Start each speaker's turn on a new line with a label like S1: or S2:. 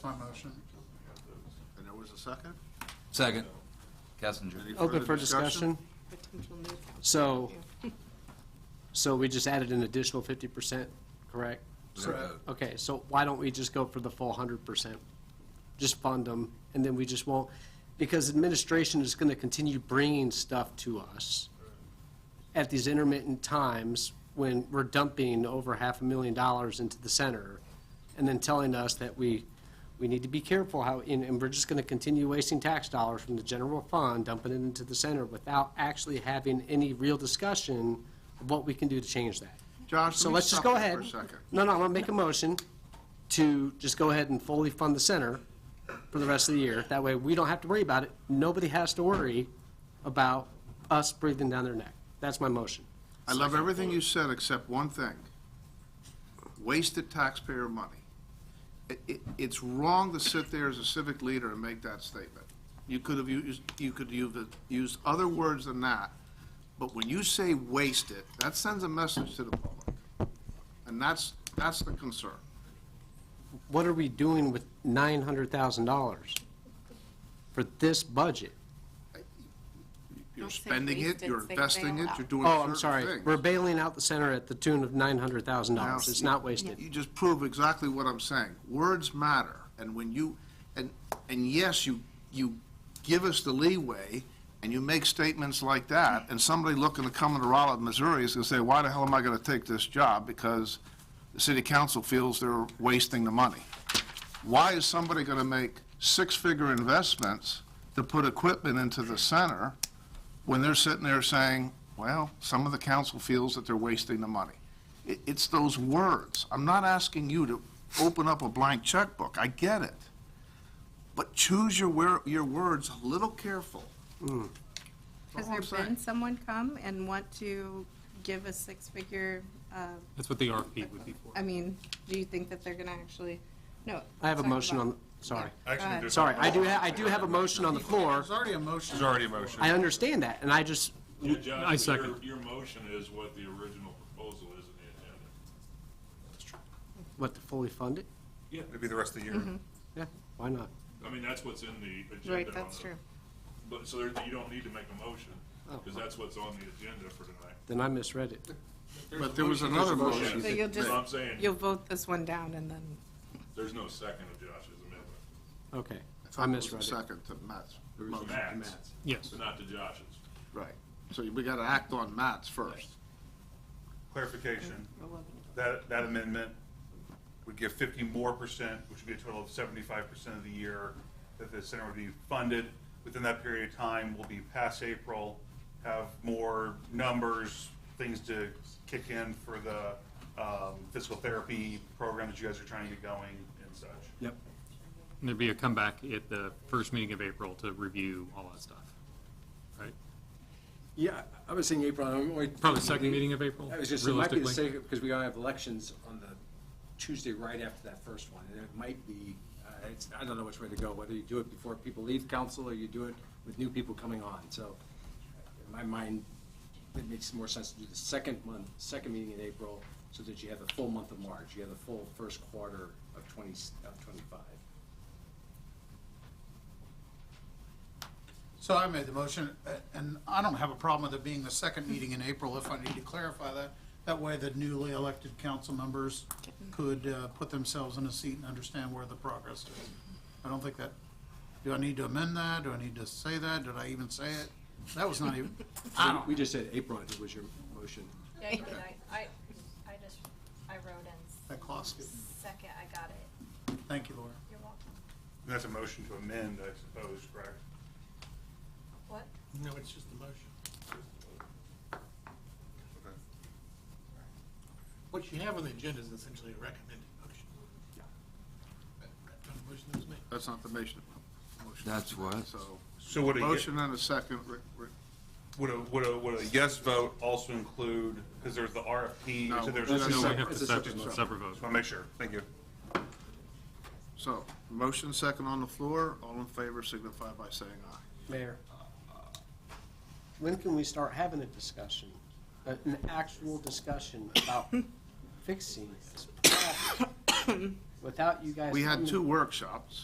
S1: My motion.
S2: And there was a second?
S3: Second. Kessinger.
S2: Any
S4: Open
S2: further
S4: for discussion.
S5: potential new council.
S4: So, so we just added an additional fifty percent, correct?
S1: Correct.
S4: Okay, so why don't we just go for the full hundred percent? Just fund them, and then we just won't, because administration is gonna continue bringing stuff to us at these intermittent times when we're dumping over half a million dollars into the center, and then telling us that we, we need to be careful how, and, and we're just gonna continue wasting tax dollars from the general fund, dumping it into the center without actually having any real discussion of what we can do to change that.
S2: Josh,
S4: So
S2: let me
S4: let's just
S2: stop you
S4: go ahead.
S2: for a second.
S4: No, no, I'm gonna make a motion to just go ahead and fully fund the center for the rest of the year. That way, we don't have to worry about it. Nobody has to worry about us breathing down their neck. That's my motion.
S2: I love everything you said except one thing. Wasted taxpayer money. It, it, it's wrong to sit there as a civic leader and make that statement. You could have used, you could have used other words than that, but when you say wasted, that sends a message to the public. And that's, that's the concern.
S4: What are we doing with nine hundred thousand dollars for this budget?
S2: You're
S5: Don't say
S2: spending it,
S5: wasted,
S2: you're
S5: say
S2: investing it,
S5: bailout.
S2: you're doing certain things.
S4: Oh, I'm sorry. We're bailing out the center at the tune of nine hundred thousand dollars. It's not wasted.
S2: You just prove exactly what I'm saying. Words matter, and when you, and, and yes, you, you give us the leeway, and you make statements like that, and somebody looking to come into Rolla, Missouri is gonna say, why the hell am I gonna take this job? Because the city council feels they're wasting the money. Why is somebody gonna make six-figure investments to put equipment into the center when they're sitting there saying, well, some of the council feels that they're wasting the money. It, it's those words. I'm not asking you to open up a blank checkbook. I get it. But choose your, wor- your words a little careful.
S5: Has
S2: That's all I'm
S5: there been
S2: saying.
S5: someone come and want to give a six-figure, uh,
S6: That's what the RFP would be for.
S5: I mean, do you think that they're gonna actually, no.
S4: I have a
S5: talk
S4: motion
S5: about-
S4: on, sorry.
S5: Go ahead.
S4: Sorry, I do, ha- I do have a motion on the floor.
S1: There's already a motion.
S7: There's already a motion.
S4: I understand that, and I just,
S8: Yeah, Josh,
S6: I
S8: but
S6: second.
S8: Your, your motion is what the original proposal is in the agenda.
S4: what, to fully fund it?
S7: It'd be the rest of the year.
S4: Yeah, why not?
S8: I mean, that's what's in the agenda.
S5: Right,
S8: on
S5: that's
S8: the-
S5: true. Oh.
S8: But, so there, you don't need to make a motion, because that's what's on the agenda for tonight.
S4: Then I misread it.
S2: But there was another motion.
S5: So you'll
S8: That's what I'm
S5: just,
S8: saying.
S5: you'll vote this one down and then,
S8: There's no second of Josh's amendment.
S4: Okay, I
S2: thought there was a
S4: misread it.
S2: Second to Matt's.
S8: To
S2: motion.
S8: Matt's.
S6: Yes.
S8: But not to Josh's.
S2: Right. So we gotta act on Matt's first.
S7: Clarification, that, that amendment would give fifty more percent, which would be a total of seventy-five percent of the year that the center would be funded. Within that period of time, will be past April, have more numbers, things to kick in for the um, physical therapy program that you guys are trying to get going and such.
S4: Yep.
S6: And there'd be a comeback at the first meeting of April to review all that stuff, right?
S9: Yeah, I was saying April. I'm only-
S6: Probably second meeting of April,
S9: I was just, it might be the
S6: realistically.
S9: second, because we gotta have elections on the Tuesday right after that first one, and it might be, uh, it's, I don't know which way to go, whether you do it before people leave council, or you do it with new people coming on, so in my mind, it makes more sense to do the second month, second meeting in April, so that you have the full month of March, you have the full first quarter of twenty, of twenty-five.
S1: So I made the motion, uh, and I don't have a problem with it being the second meeting in April if I need to clarify that. That way the newly elected council members could uh, put themselves in a seat and understand where the progress is. I don't think that, do I need to amend that? Do I need to say that? Did I even say it? That was not even, I don't,
S9: We just said April, I think was your motion.
S10: Yeah, I did, I, I, I just, I wrote in
S1: that cost it.
S10: second, I got it,
S1: Thank you, Laura.
S10: you're welcome.
S7: And that's a motion to amend, I suppose, correct?
S10: What?
S1: No, it's just the motion.
S11: What you have on the agenda is essentially a recommended motion. That kind of motion that was made.
S2: That's not the motion. motion.
S3: That's what?
S2: So,
S7: So would a,
S2: motion and a second. Rick- Rick-
S7: would a, would a, would a yes vote also include, because there's the RFP,
S2: No,
S7: so there's
S2: that's
S6: No, we
S7: no
S6: have to
S9: It's a
S6: sep-
S9: separate vote.
S6: separate vote.
S7: Just want to make sure. Thank you.
S2: So, motion second on the floor. All in favor signify by saying aye.
S4: Mayor,
S9: Uh,
S4: when can we start having a discussion, uh, a- an actual discussion about fixing this? problem? without you guys.
S2: We had
S4: coming-
S2: two workshops.